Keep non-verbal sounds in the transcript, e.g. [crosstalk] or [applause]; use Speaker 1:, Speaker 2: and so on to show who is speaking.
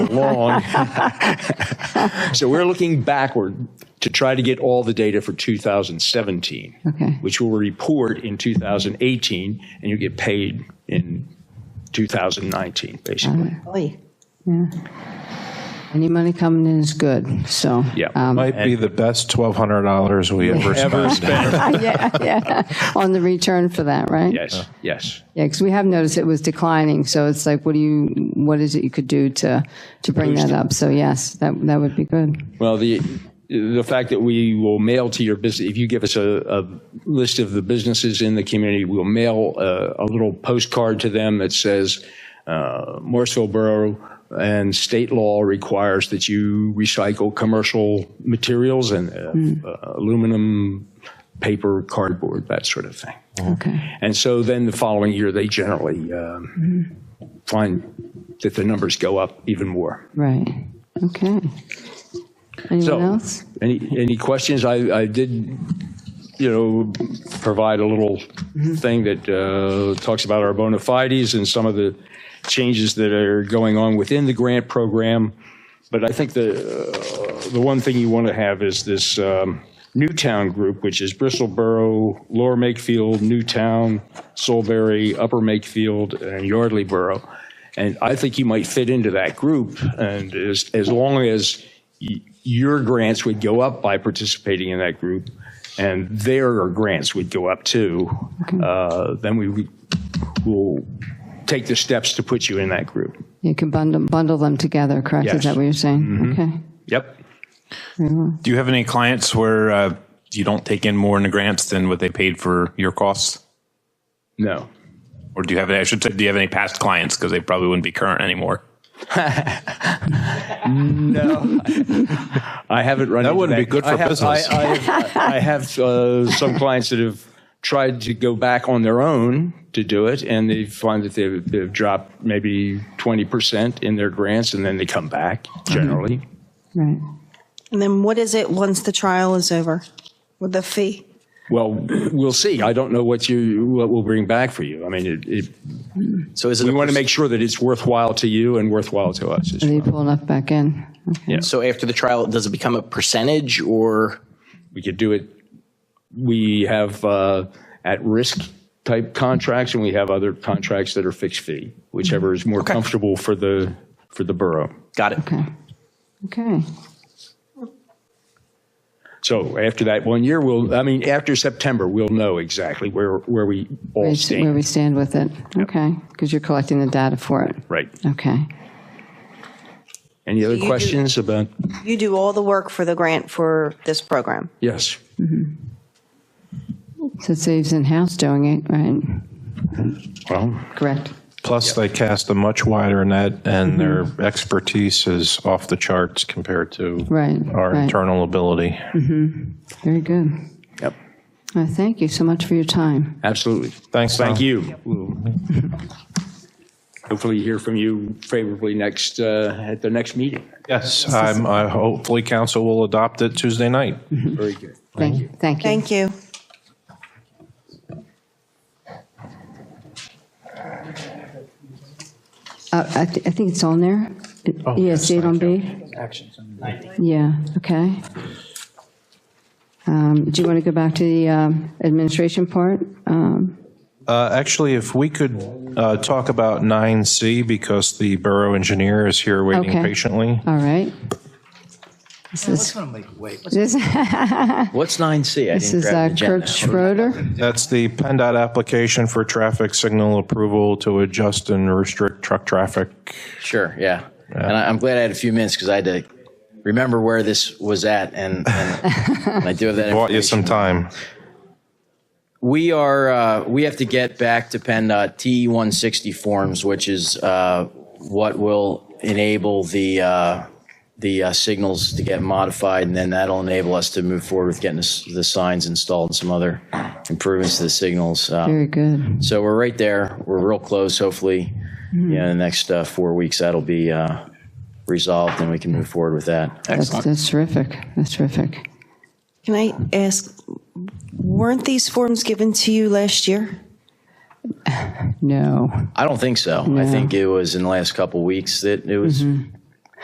Speaker 1: long. so we're looking backward to try to get all the data for 2017,
Speaker 2: Okay.
Speaker 1: which we'll report in 2018, and you get paid in 2019, basically.
Speaker 3: Oy.
Speaker 2: Any money coming in is good, so.
Speaker 1: Yeah.
Speaker 2: um,
Speaker 4: Might be the best $1,200 we ever
Speaker 2: [laughs]
Speaker 4: spent.
Speaker 2: Yeah, yeah, on the return for that, right?
Speaker 1: Yes, yes.
Speaker 2: Yeah, because we have noticed it was declining, so it's like, what do you, what is it you could do to, to bring that up? So yes, that, that would be good.
Speaker 1: Well, the, the fact that we will mail to your business, if you give us a, a list of the businesses in the community, we'll mail a, a little postcard to them that says, uh, Morrisville Borough and state law requires that you recycle commercial materials and uh, aluminum, paper, cardboard, that sort of thing.
Speaker 2: Okay,
Speaker 1: And so then the following year, they generally um, find that the numbers go up even more.
Speaker 2: right, okay.
Speaker 1: So,
Speaker 2: Anyone else?
Speaker 1: Any, any questions? I, I did, you know, provide a little thing that uh, talks about our bona fides and some of the changes that are going on within the grant program. But I think the, uh, the one thing you want to have is this um, Newtown group, which is Bristol Borough, Lower Makefield, Newtown, Solberry, Upper Makefield, and Yardley Borough. And I think you might fit into that group, and as, as long as y- your grants would go up by participating in that group, and their grants would go up too, uh, then we would- will take the steps to put you in that group.
Speaker 2: You can bundle, bundle them together, correct?
Speaker 1: Yes.
Speaker 2: Is
Speaker 1: Mm-hmm.
Speaker 2: that what you're saying? Okay,
Speaker 1: Yep.
Speaker 4: Do you have any clients where uh, you don't take in more in the grants than what they paid for your costs?
Speaker 1: No.
Speaker 4: Or do you have, I should say, do you have any past clients? Because they probably wouldn't be current anymore.
Speaker 1: I haven't run. That
Speaker 4: wouldn't be good for
Speaker 1: I have,
Speaker 4: business.
Speaker 1: I, I have, I have uh, some clients that have tried to go back on their own to do it, and they find that they've, they've dropped maybe twenty percent in their grants, and then they come back
Speaker 4: Mm-hmm.
Speaker 1: generally.
Speaker 2: right.
Speaker 3: And then what is it once the trial is over with the fee?
Speaker 1: Well, we'll see. I don't know what you what we'll bring back for you. I mean, it, it,
Speaker 5: So is it?
Speaker 1: we
Speaker 5: a
Speaker 1: want to
Speaker 5: pers-
Speaker 1: make sure that it's worthwhile to you and worthwhile to us. As
Speaker 2: Are you
Speaker 1: well.
Speaker 2: pulling up back in? Okay.
Speaker 5: So after the trial, does it become a percentage or?
Speaker 1: We could do it. We have uh, at risk type contracts, and we have other contracts that are fixed fee, whichever is more comfortable for the for the borough.
Speaker 5: Got it.
Speaker 2: Okay, okay,
Speaker 1: So after that one year, we'll. I mean, after September, we'll know exactly where where we all
Speaker 2: Where-
Speaker 1: stand.
Speaker 2: where we stand with it, okay, because you're collecting the data for it,
Speaker 1: right.
Speaker 2: okay.
Speaker 1: Any other
Speaker 3: you do-
Speaker 1: questions about?
Speaker 3: You do all the work for the grant for this program.
Speaker 1: Yes.
Speaker 2: So it saves in-house doing it, right?
Speaker 1: Well,
Speaker 2: Correct.
Speaker 4: Plus, they cast a much wider net,
Speaker 2: Mm-hmm.
Speaker 4: and their expertise is off the charts compared to
Speaker 2: Right,
Speaker 4: our
Speaker 2: right.
Speaker 4: internal ability.
Speaker 2: Very good.
Speaker 1: yep.
Speaker 2: Uh, Thank you so much for your time.
Speaker 1: Absolutely.
Speaker 4: Thanks,
Speaker 1: Thank
Speaker 4: Tom.
Speaker 1: you. We'll Hopefully hear from you favorably next, uh, at the next meeting.
Speaker 4: Yes, I'm, I- hopefully council will adopt it Tuesday night.
Speaker 1: Very good.
Speaker 2: Thank you. Thank you.
Speaker 3: Thank you.
Speaker 2: Uh, I thi- I think it's on there.
Speaker 1: Oh,
Speaker 2: Yeah, see it on B? Yeah, okay. Um, Do you want to go back to the um, administration part? Um,
Speaker 4: Uh, Actually, if we could uh, talk about 9C, because the borough engineer is here waiting
Speaker 2: Okay.
Speaker 4: patiently.
Speaker 2: All right. This is, this
Speaker 5: What's nine C?
Speaker 2: this is uh, Kurt Schroeder.
Speaker 4: That's the PennDOT application for traffic signal approval to adjust and restrict truck traffic.
Speaker 5: Sure, yeah. And I, I'm glad I had a few minutes because I had to remember where this was at and, and, and I do have
Speaker 4: [laughs]
Speaker 5: that
Speaker 4: Bought you some
Speaker 5: information.
Speaker 4: time.
Speaker 5: We are, uh, we have to get back to PennDOT TE one sixty forms, which is, uh, what will enable the, uh, the uh, signals to get modified and then that'll enable us to move forward with getting this- the signs installed and some other improvements to the signals. Uh,
Speaker 2: Very good.
Speaker 5: So we're right there. We're real close. Hopefully, you know, in the next uh, four weeks, that'll be uh, resolved, and we can move forward with that.
Speaker 2: That's that's terrific. That's terrific.
Speaker 3: Can I ask, weren't these forms given to you last year?
Speaker 2: No.
Speaker 5: I don't think so. I think it was in the last couple weeks that it was